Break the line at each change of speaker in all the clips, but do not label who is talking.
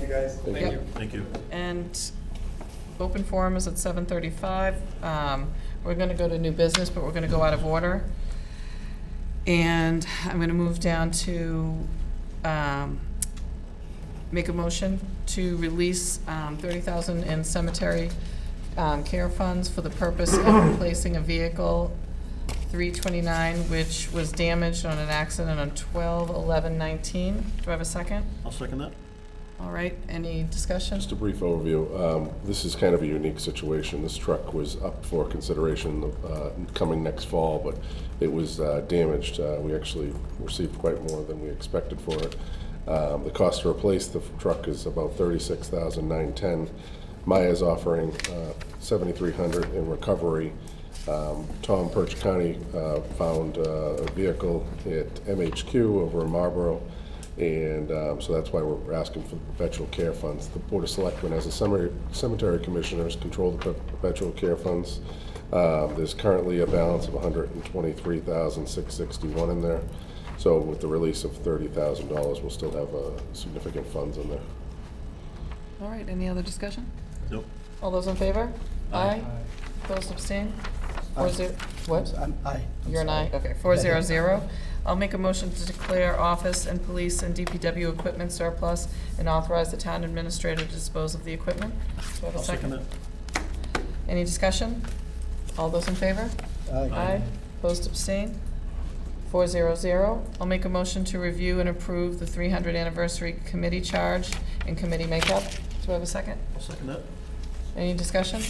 you guys.
Thank
Yep.
you.
Thank you.
And open forum is at seven thirty-five. Um, we're gonna go to new business, but we're gonna go out of order. And I'm gonna move down to, um, make a motion to release, um, thirty thousand in cemetery, um, care funds for the purpose of replacing a vehicle, three twenty-nine, which was damaged on an accident on twelve eleven nineteen. Do I have a second?
I'll second that.
All right, any discussion?
Just a brief overview. Um, This is kind of a unique situation. This truck was up for consideration uh, coming next fall, but it was uh, damaged. Uh, We actually received quite more than we expected for it. Um, The cost to replace the truck is about $36,910. Maya's offering uh, $7,300 in recovery. Um, Tom Perch County uh, found uh, a vehicle at MHQ over in Marlboro, and um, so that's why we're asking for the perpetual care funds. The Board of Selectmen, as the cemetery- cemetery commissioners, control the per- perpetual care funds. Um, There's currently a balance of $123,661 in there, so with the release of $30,000, we'll still have uh, significant funds in there.
All right, any other discussion?
Nope.
All those in favor? Aye. Those abstain? Four
Aye.
zero, what?
I'm, I.
You're an aye, okay, four zero zero. I'll make a motion to declare office and police and DPW equipment surplus and authorize the town administrator to dispose of the equipment. Do I have a
I'll second that.
second? Any discussion? All those in favor? Aye. Opposed, abstain? Four zero zero. I'll make a motion to review and approve the three hundred anniversary committee charge and committee makeup. Do I have a second?
I'll second that.
Any discussion?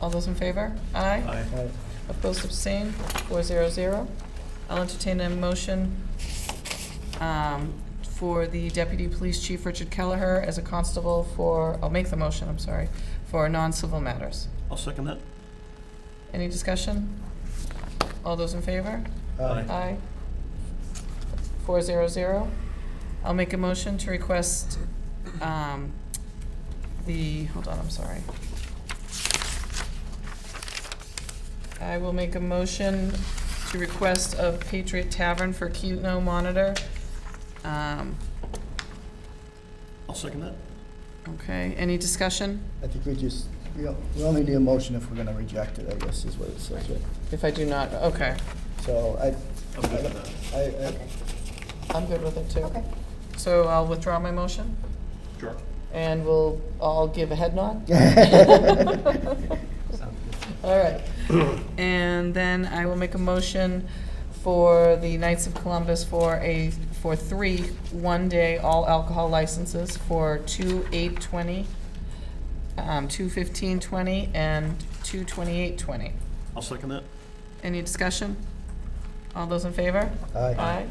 All those in favor? Aye.
Aye.
Aye.
Opposed, abstained, four zero zero. I'll entertain a motion um, for the Deputy Police Chief Richard Kelleher as a constable for, I'll make the motion, I'm sorry, for non-civil matters.
I'll second that.
Any discussion? All those in favor?
Aye.
Aye. Four zero zero. I'll make a motion to request um, the, hold on, I'm sorry. I will make a motion to request of Patriot Tavern for Keno monitor. Um,
I'll second that.
Okay, any discussion?
I think we just, we o- we only need a motion if we're gonna reject it, I guess is what it says. right?
If I do not, okay,
So I,
I'm good with
I, I,
I'm good with it too.
Okay.
So I'll withdraw my motion,
that. Sure.
and we'll all give a head nod? All right. And then I will make a motion for the Knights of Columbus for a, for three one-day all alcohol licenses for two eight twenty, um, two fifteen twenty, and two twenty-eight twenty.
I'll second that.
Any discussion? All those in favor?
aye.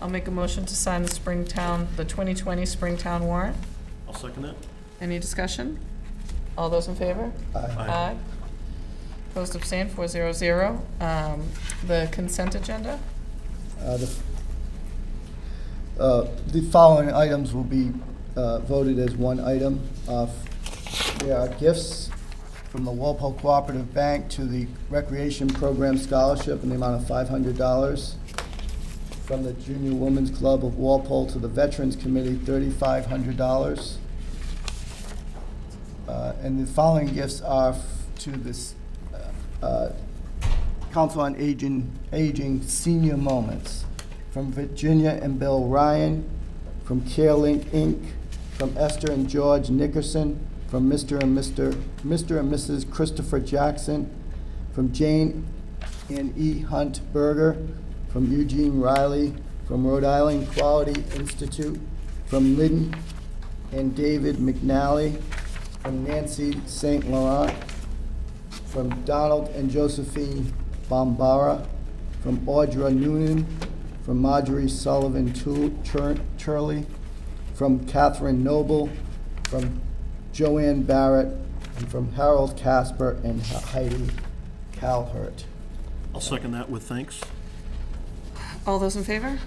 I'll make a motion to sign the Springtown, the twenty twenty Springtown warrant.
I'll second that.
Any discussion? All those in favor?
Aye.
Aye.
Opposed, abstained, four zero zero. Um, The consent agenda,
Uh, The uh, the following items will be uh, voted as one item. Uh, They are gifts from the Walpole Cooperative Bank to the Recreation Program Scholarship in the amount of $500. From the Junior Women's Club of Walpole to the Veterans Committee, $3,500. Uh, And the following gifts are f- to this uh, uh, Council on Aging, Aging Senior Moments, from Virginia and Bill Ryan, from CareLink Inc., from Esther and George Nickerson, from Mr. and Mr., Mr. and Mrs. Christopher Jackson, from Jane and E. Hunt Berger, from Eugene Riley, from Rhode Island Quality Institute, from Lynn and David McNally, from Nancy St. Laurent, from Donald and Josephine Bombara, from Audra Noonan, from Marjorie Sullivan Tu- Tur- Turley, from Catherine Noble, from Joanne Barrett, and from Harold Casper and Heidi Calhert.
I'll second that with thanks.
all those in favor?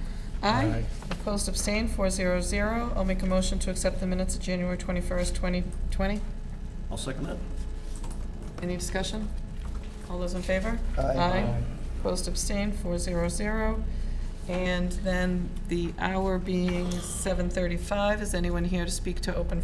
Aye. Opposed, abstained, four zero zero. I'll make a motion to accept the minutes of January twenty-first, twenty twenty.
I'll second that.
Any discussion? All those in favor?
Aye.
Opposed, abstained, four zero zero. And then the hour being 7:35, is anyone here to speak to open